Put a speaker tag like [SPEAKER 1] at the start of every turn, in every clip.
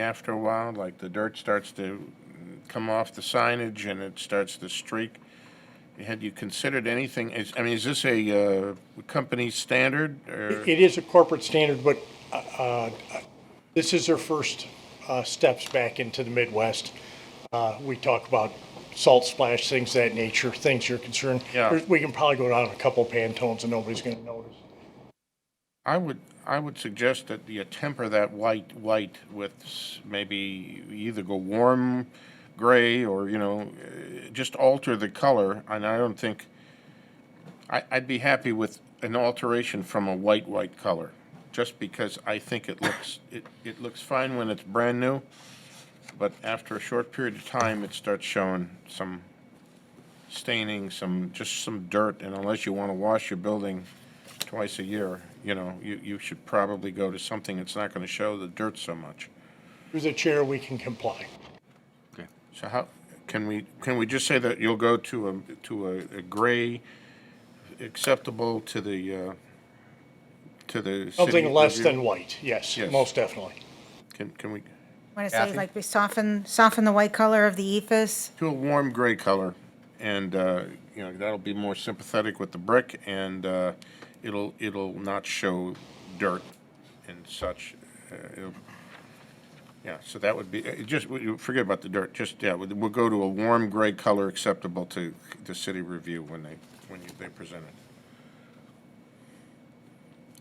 [SPEAKER 1] after a while, like the dirt starts to come off the signage and it starts to streak. Had you considered anything, is, I mean, is this a, uh, company standard or?
[SPEAKER 2] It is a corporate standard, but uh, uh, this is their first uh, steps back into the Midwest. Uh, We talk about salt splash, things of that nature, things you're concerned.
[SPEAKER 1] Yeah.
[SPEAKER 2] There's- We can probably go down a couple Pantones and nobody's going to notice.
[SPEAKER 1] I would, I would suggest that you temper that white, white with s- maybe either go warm gray or, you know, eh, just alter the color. And I don't think, I, I'd be happy with an alteration from a white, white color. Just because I think it looks, it, it looks fine when it's brand new, but after a short period of time, it starts showing some staining, some, just some dirt. And unless you want to wash your building, twice a year, you know, you, you should probably go to something that's not gonna show the dirt so much.
[SPEAKER 2] Through the chair, we can comply.
[SPEAKER 3] Okay.
[SPEAKER 1] So how, can we, can we just say that you'll go to a, to a, a gray acceptable to the, uh, to the city?
[SPEAKER 2] Something less
[SPEAKER 1] review?
[SPEAKER 2] than white, yes,
[SPEAKER 1] Yes.
[SPEAKER 2] most definitely.
[SPEAKER 1] Can, can we,
[SPEAKER 4] Want to say
[SPEAKER 3] Kathy?
[SPEAKER 4] like we soften, soften the white color of the E ethos?
[SPEAKER 1] to a warm gray color, and, uh, you know, that'll be more sympathetic with the brick, and, uh, it'll, it'll not show dirt and such. Uh, it'll- Yeah, so that would be, uh, just, we- you forget about the dirt, just, yeah, we'll we'll go to a warm gray color acceptable to the city review when they, when you- they present it.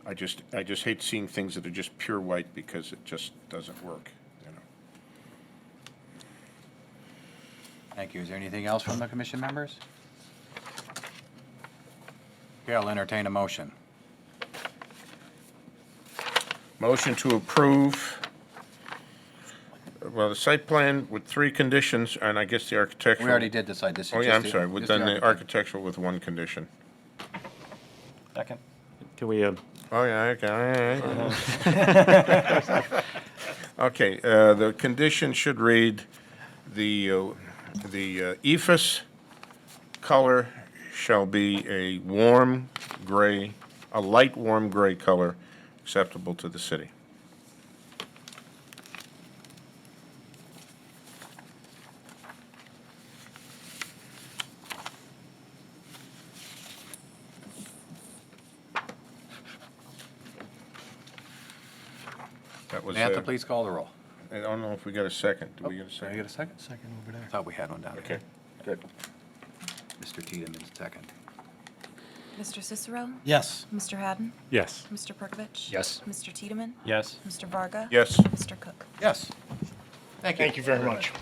[SPEAKER 1] I just, I just hate seeing things that are just pure white because it just doesn't work, you know?
[SPEAKER 3] Thank you. Is there anything else from the commission members? Okay, I'll entertain a motion.
[SPEAKER 1] Motion to approve, well, the site plan with three conditions, and I guess the
[SPEAKER 3] We
[SPEAKER 1] architectural.
[SPEAKER 3] already did decide this. is
[SPEAKER 1] Oh, yeah,
[SPEAKER 3] just
[SPEAKER 1] I'm
[SPEAKER 3] the-
[SPEAKER 1] sorry, we've
[SPEAKER 3] just the
[SPEAKER 1] done the
[SPEAKER 3] architect-
[SPEAKER 1] architectural with one condition.
[SPEAKER 5] Second.
[SPEAKER 6] Can we, uh,
[SPEAKER 1] Oh, yeah, okay, all right, all right. Okay, uh, the condition should read, the, uh, the uh, ephes color shall be a warm gray, a light warm gray color acceptable to the city. That was, uh,
[SPEAKER 3] Samantha, please call the roll.
[SPEAKER 1] I don't know if we got a second,
[SPEAKER 2] Oh,
[SPEAKER 1] do we get a
[SPEAKER 3] Did I get
[SPEAKER 1] second?
[SPEAKER 3] a second? Second over there. Thought we had one down
[SPEAKER 1] Okay,
[SPEAKER 3] here.
[SPEAKER 1] good.
[SPEAKER 3] Mr. Tiedemann, second.
[SPEAKER 7] Mr. Cicero?
[SPEAKER 5] Yes.
[SPEAKER 7] Mr. Haddon?
[SPEAKER 6] yes,
[SPEAKER 7] Mr. Perkovich?
[SPEAKER 5] Yes.
[SPEAKER 7] Mr. Tiedemann?
[SPEAKER 5] Yes.
[SPEAKER 7] Mr. Varga?
[SPEAKER 1] Yes.
[SPEAKER 7] Mr. Cook?
[SPEAKER 3] Yes. Thank you.
[SPEAKER 2] Thank you very much.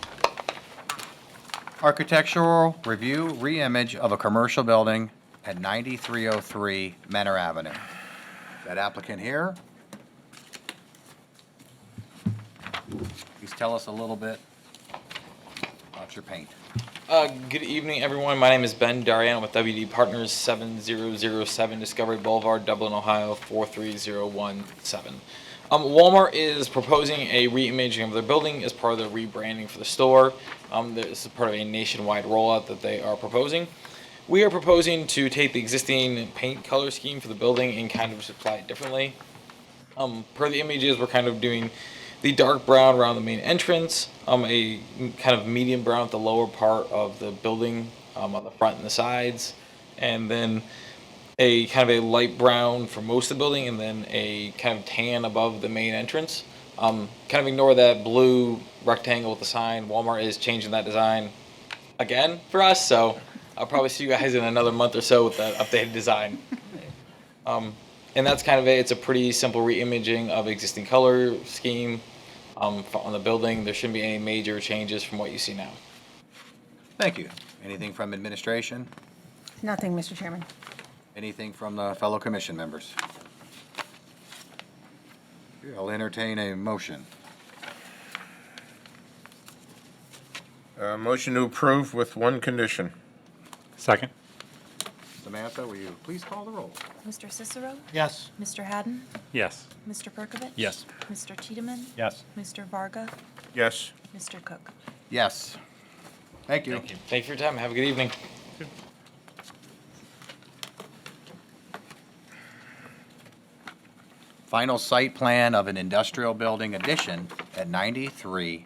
[SPEAKER 3] Architectural review reimage of a commercial building at 9303 Menor Avenue. That applicant here? Please tell us a little bit about your paint.
[SPEAKER 5] Uh, good evening, everyone. My name is Ben Darian with WD Partners 7007 Discovery Boulevard, Dublin, Ohio 43017. Um, Walmart is proposing a reimaging of their building as part of the rebranding for the store. Um, this is part of a nationwide rollout that they are proposing. We are proposing to take the existing paint color scheme for the building and kind of apply it differently. Um, per the images, we're kind of doing the dark brown around the main entrance, um, a m- kind of medium brown at the lower part of the building um, on the front and the sides, and then a kind of a light brown for most of the building, and then a kind of tan above the main entrance. Um, kind of ignore that blue rectangle with the sign. Walmart is changing that design again for us, so I'll probably see you guys in another month or so with that updated design. And that's kind of it. It's a pretty simple reimaging of existing color scheme um, f- on the building. There shouldn't be any major changes from what you see now.
[SPEAKER 3] Thank you. Anything from administration?
[SPEAKER 4] Nothing, Mr. Chairman.
[SPEAKER 3] Anything from the fellow commission members? Okay, I'll entertain a motion.
[SPEAKER 1] Uh, motion to approve with one condition.
[SPEAKER 6] second,
[SPEAKER 3] Samantha, will you please call the roll?
[SPEAKER 7] Mr. Cicero?
[SPEAKER 5] Yes.
[SPEAKER 7] Mr. Haddon?
[SPEAKER 6] yes.
[SPEAKER 7] Mr. Perkovich?
[SPEAKER 5] Yes.
[SPEAKER 7] Mr. Tiedemann?
[SPEAKER 5] Yes.
[SPEAKER 7] Mr. Varga?
[SPEAKER 1] Yes.
[SPEAKER 7] Mr. Cook?
[SPEAKER 3] Yes. Thank you.
[SPEAKER 5] Thank you. Thank you for your time. Have a good evening.
[SPEAKER 3] Final site plan of an industrial building addition at 93